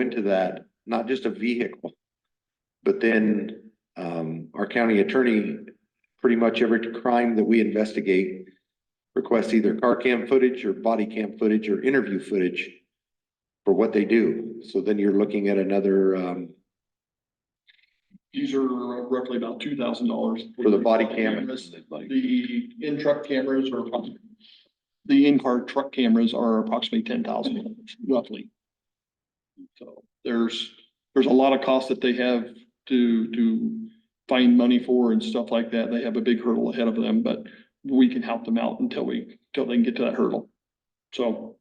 into that, not just a vehicle. But then, um, our county attorney, pretty much every crime that we investigate. Requests either car cam footage or body cam footage or interview footage. For what they do, so then you're looking at another, um, These are roughly about two thousand dollars. for the body cam. The in-truck cameras are approximately, the in-car truck cameras are approximately ten thousand dollars roughly. So there's, there's a lot of costs that they have to, to find money for and stuff like that. They have a big hurdle ahead of them, but we can help them out until we, until they can get to that hurdle. So,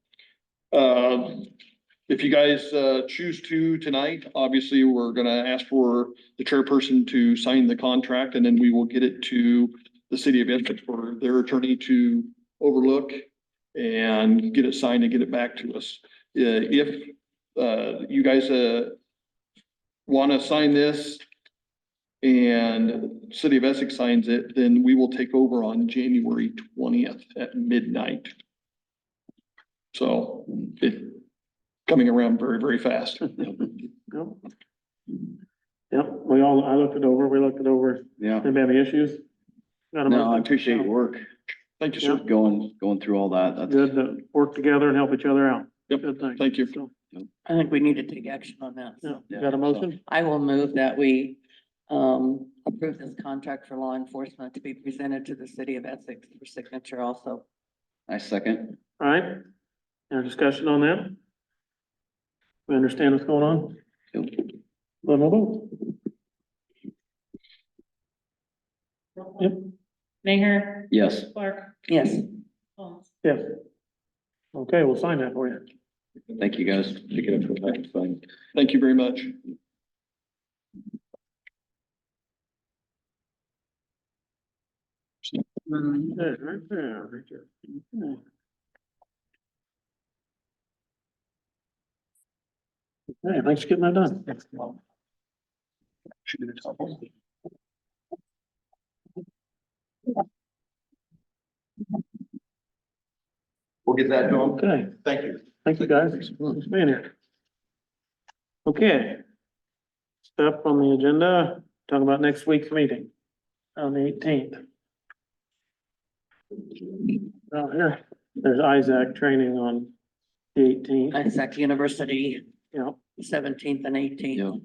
uh, if you guys, uh, choose to tonight, obviously, we're gonna ask for the chairperson to sign the contract and then we will get it to the city of Essex for their attorney to overlook and get it signed and get it back to us. Uh, if, uh, you guys, uh, want to sign this and city of Essex signs it, then we will take over on January twentieth at midnight. So it coming around very, very fast. Yep, Yep. we all, I looked it over, we looked it over. Yeah, Anybody have any issues? Got 'em no, all I appreciate your work, Thank you, Just sir. going, going through all that, that's, Good to work together and help each other out. Yep, Good thing. Thank you. So, I think we need to take action on that. yeah, So Yeah, got a so- motion? I will move that we um approve this contract for law enforcement to be presented to the city of Essex for signature also. I second, All right, any discussion on that? We understand what's going on? Yep. Let me vote. Yep, Mayor yes, Clark. Yes, Holmes. yes. Okay, we'll sign that for you. thank you guys. Pick it up for the next thing. Thank you very much. There, right there, right there. Okay. Okay, thanks for getting that done. We'll get that done. Okay, Thank you. thank you guys. Thanks for being here. Okay. Step on the agenda, talk about next week's meeting on the eighteenth. Oh, here, there's Isaac training on the eighteenth, Essex University, yeah, seventeenth and Yeah, eighteenth.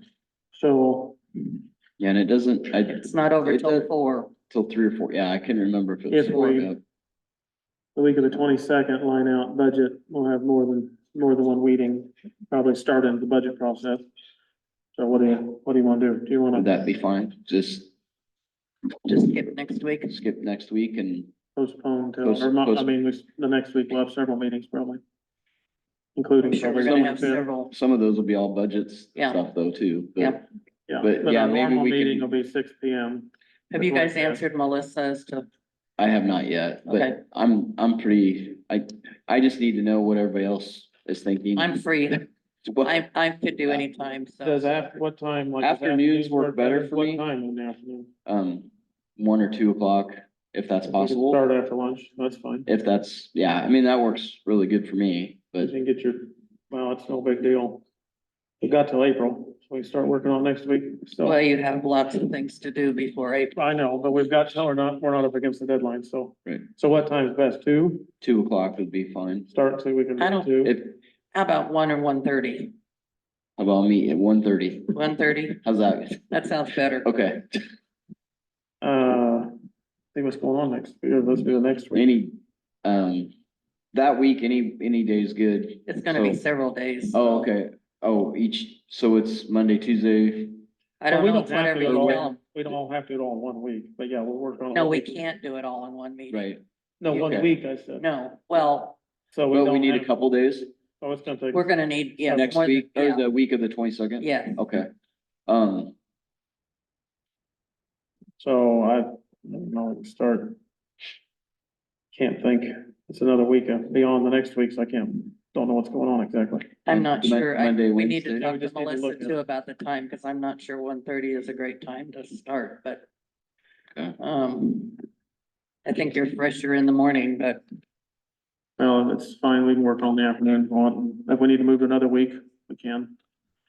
so yeah, and it doesn't, I, It's not over It till does- four. till three or four, yeah, I couldn't remember if it was If four, we- yeah. the week of the twenty-second, line out budget, we'll have more than, more than one meeting, probably starting the budget process. So what do you, what do you wanna do? Do you wanna? would that be fine? Just Just skip next week. skip next week and, Postpone Post- till, uh, or not, I post- mean, we- the next week we'll have several meetings probably. Including. I'm sure we're gonna have several. some of those will be all budgets Yeah. stuff though too, Yeah. but Yeah, but but yeah, our maybe normal we can- meeting will be six P M. Have you guys answered Melissa as to, I have not yet, Okay. but I'm, I'm pretty, I, I just need to know what everybody else is thinking. I'm free. What- I, I could do any time. so. Does after, what time? like, does Afternoons work better for What me. time in the afternoon? um, one or two o'clock, if that's We can possible. Start after lunch, that's fine. If that's, yeah, I mean, that works really good for me, You but can get your, well, it's no big deal. We got till April, so we can start working on next week, so. Well, you have lots of things to do before April. I know, but we've got till or not, we're not up against the deadline, so. Right. So what time's best? Two, two o'clock would be fine. start so we can. I don't- do two. If, How about one or one thirty? well, I'll meet at one thirty. One thirty? How's that? That sounds better. Okay, Uh, see what's going on next, year. let's do the next week. any, um, that week, any, any day is good. It's gonna be So- several days. Oh, so okay. Oh, each, so it's Monday, Tuesday. I don't Well, we know, don't it's have whatever to you go tell all- 'em. We don't all have to do it all in one week, but yeah, we'll work on. it. No, we can't do it all in one meeting. Right. No, one Okay. week, I said. No, well, So we Well, we don't need a have, couple days oh, it's gonna take. we're gonna need, yeah. next more than- week or yeah, the week of the twenty-second? Yeah, Okay. Um, So I, I don't know, we can start. Can't think, it's another week uh, beyond the next week, so I can't, don't know what's going on exactly. I'm not Mon- sure. I, Monday, we need to Wednesday? We talk to just need to Melissa look at- too about the time, cause I'm not sure one thirty is a great time to start, but. Okay. Um, I think you're fresher in the morning, but Well, it's fine, we can work on the afternoon if we want, if we need to move to another week, we can.